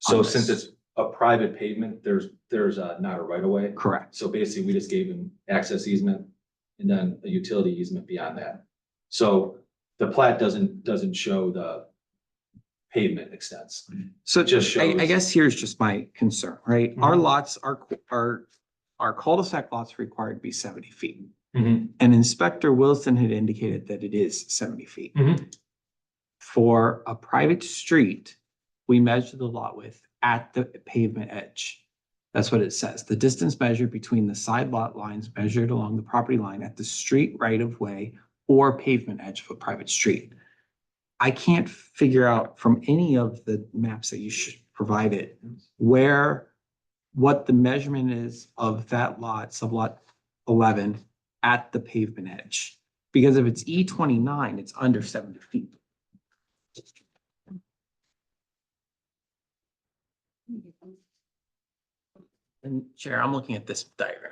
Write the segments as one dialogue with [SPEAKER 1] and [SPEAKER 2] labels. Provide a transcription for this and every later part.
[SPEAKER 1] So
[SPEAKER 2] on this.
[SPEAKER 1] since it's a private pavement, there's, there's uh, not a right of way.
[SPEAKER 2] Correct,
[SPEAKER 1] So basically, we just gave him access easement and then a utility easement beyond that. So the plat doesn't, doesn't show the pavement extents.
[SPEAKER 2] so
[SPEAKER 1] It just
[SPEAKER 2] I, I
[SPEAKER 1] shows- Mm-hmm.
[SPEAKER 2] guess here's just my concern, right? Our lots are, are, our cul-de-sac lots required to be seventy feet. And Inspector Wilson had indicated that it is seventy feet.
[SPEAKER 1] Mhm.
[SPEAKER 2] For a private street, we measure the lot width at the pavement edge. That's what it says. The distance measured between the side lot lines measured along the property line at the street right of way or pavement edge of a private street. I can't figure out from any of the maps that you should provide it where, what the measurement is of that lot, sublot eleven at the pavement edge. Because if it's E twenty-nine, it's under seventy feet. And Chair, I'm looking at this diagram.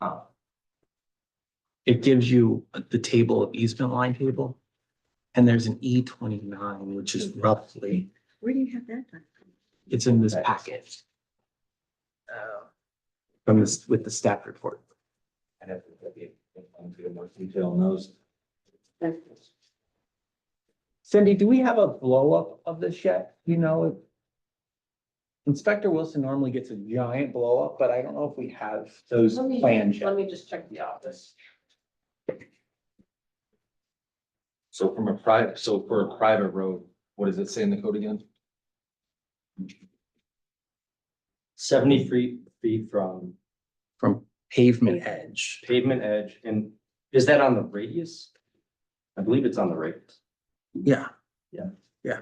[SPEAKER 1] Uh,
[SPEAKER 3] Oh.
[SPEAKER 2] It gives you the table of easement line table. And there's an E twenty-nine, which is roughly,
[SPEAKER 3] Where do you have that done?
[SPEAKER 2] it's in this packet. uh, From this, with the staff report.
[SPEAKER 3] I'd have to look it into more
[SPEAKER 1] Detail on those.
[SPEAKER 2] Cindy, do we have a blow up of this yet? You know, it- Inspector Wilson normally gets a giant blow up, but I don't know if we have those
[SPEAKER 4] Let me-
[SPEAKER 2] plans
[SPEAKER 4] Let
[SPEAKER 2] yet.
[SPEAKER 4] me just check the office.
[SPEAKER 1] So from a private, so for a private road, what does it say in the code again?
[SPEAKER 5] seventy feet, feet from
[SPEAKER 2] From pavement edge.
[SPEAKER 5] pavement edge, and is that on the radius? I believe it's on the radius.
[SPEAKER 2] Yeah.
[SPEAKER 5] Yeah.
[SPEAKER 2] Yeah.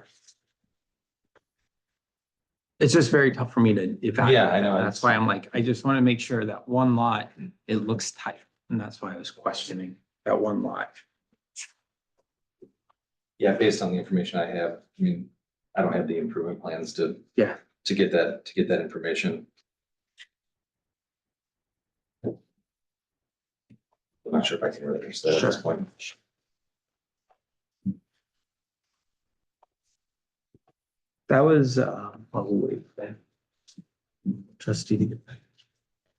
[SPEAKER 2] It's just very tough for me to evaluate.
[SPEAKER 1] Yeah, I know,
[SPEAKER 2] that.
[SPEAKER 1] it's-
[SPEAKER 2] That's why I'm like, I just want to make sure that one lot, it looks tight. And that's why I was questioning that one lot.
[SPEAKER 1] Yeah, based on the information I have, I mean, I don't have the improvement plans to.
[SPEAKER 2] Yeah.
[SPEAKER 1] To get that, to get that information. I'm not sure if I can really answer that at this
[SPEAKER 2] Sure.
[SPEAKER 1] point.
[SPEAKER 2] That was, uh, probably. Trustee to get back.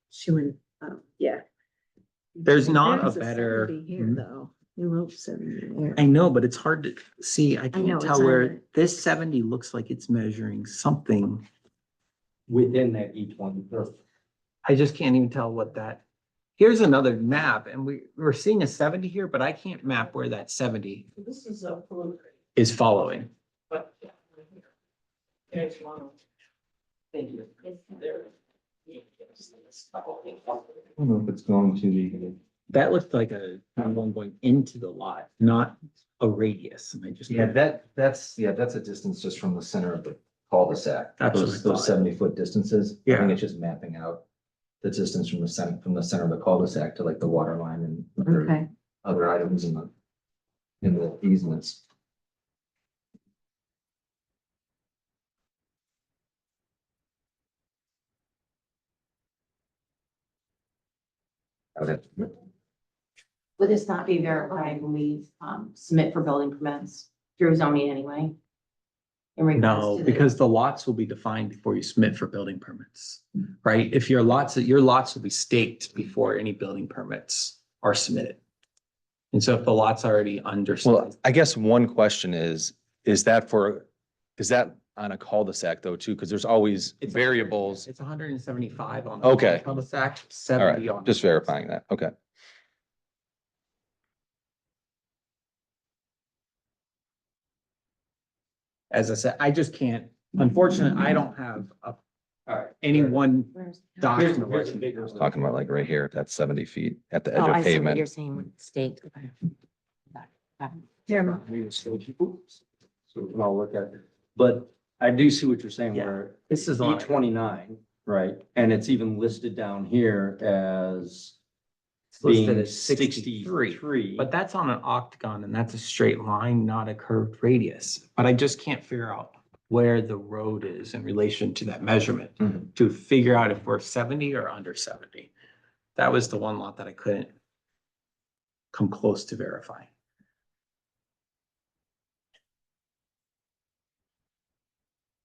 [SPEAKER 3] She went, oh, yeah.
[SPEAKER 2] There's not a
[SPEAKER 3] There's
[SPEAKER 2] better-
[SPEAKER 3] 70 Here,
[SPEAKER 2] Mhm.
[SPEAKER 3] though. You wrote seventy there.
[SPEAKER 2] I know, but it's hard to see. I
[SPEAKER 3] know,
[SPEAKER 2] can
[SPEAKER 3] it's
[SPEAKER 2] tell where
[SPEAKER 3] hard.
[SPEAKER 2] this seventy looks like it's measuring something.
[SPEAKER 5] Within that E twenty, or
[SPEAKER 2] I just can't even tell what that. Here's another map and we, we're seeing a seventy here, but I can't map where that seventy
[SPEAKER 4] This is a preliminary,
[SPEAKER 2] is following.
[SPEAKER 4] but. yeah, right here. There's one. Thank you. There. Yeah, just this couple things.
[SPEAKER 5] I don't know if it's going to the.
[SPEAKER 2] That looked like a, one going into the lot, not a radius. And I just.
[SPEAKER 5] Yeah,
[SPEAKER 1] that, that's, yeah, that's a distance just from the center of the cul-de-sac.
[SPEAKER 2] That's what I Those- those thought.
[SPEAKER 1] seventy foot distances.
[SPEAKER 2] I think Yeah.
[SPEAKER 1] it's just mapping out the distance from the center, from the center of the cul-de-sac to like the water line and
[SPEAKER 3] Okay,
[SPEAKER 1] other items in the, in the easements. Okay.
[SPEAKER 6] Would this not be verified when we um submit for building permits through zoning anyway? In regards
[SPEAKER 2] No,
[SPEAKER 6] to the-
[SPEAKER 2] because the lots will be defined before you submit for building permits, right? If your lots, your lots will be staked before any building permits are submitted. And so if the lot's already under.
[SPEAKER 1] Well, I guess one question is, is that for, is that on a cul-de-sac though too? Because there's always
[SPEAKER 2] It's a hundred-
[SPEAKER 1] variables.
[SPEAKER 2] It's hundred and seventy-five on.
[SPEAKER 1] Okay.
[SPEAKER 2] Cul-de-sac,
[SPEAKER 1] All
[SPEAKER 2] seventy on.
[SPEAKER 1] right, just verifying that. Okay.
[SPEAKER 2] As I said, I just can't, unfortunately, I don't have a,
[SPEAKER 5] Alright.
[SPEAKER 2] any one
[SPEAKER 6] Where's-
[SPEAKER 5] Here's,
[SPEAKER 2] document.
[SPEAKER 5] here's a bigger.
[SPEAKER 2] where-
[SPEAKER 1] Talking about like right here, that's seventy feet at the edge
[SPEAKER 6] Oh,
[SPEAKER 1] of
[SPEAKER 6] I see what
[SPEAKER 1] pavement.
[SPEAKER 6] you're saying, state.
[SPEAKER 3] there,
[SPEAKER 5] We just go, oops. So we can all look at it, but I do see what you're saying
[SPEAKER 2] Yeah.
[SPEAKER 5] where
[SPEAKER 2] This is
[SPEAKER 5] E
[SPEAKER 2] on.
[SPEAKER 5] twenty-nine, right, and it's even listed down here as
[SPEAKER 2] it's listed
[SPEAKER 5] being
[SPEAKER 2] as
[SPEAKER 5] sixty-three.
[SPEAKER 2] But that's on an octagon and that's a straight line, not a curved radius. But I just can't figure out where the road is in relation to that measurement
[SPEAKER 1] Mm-hmm.
[SPEAKER 5] Mhm.
[SPEAKER 2] to figure out if we're seventy or under seventy. That was the one lot that I couldn't come close to verifying.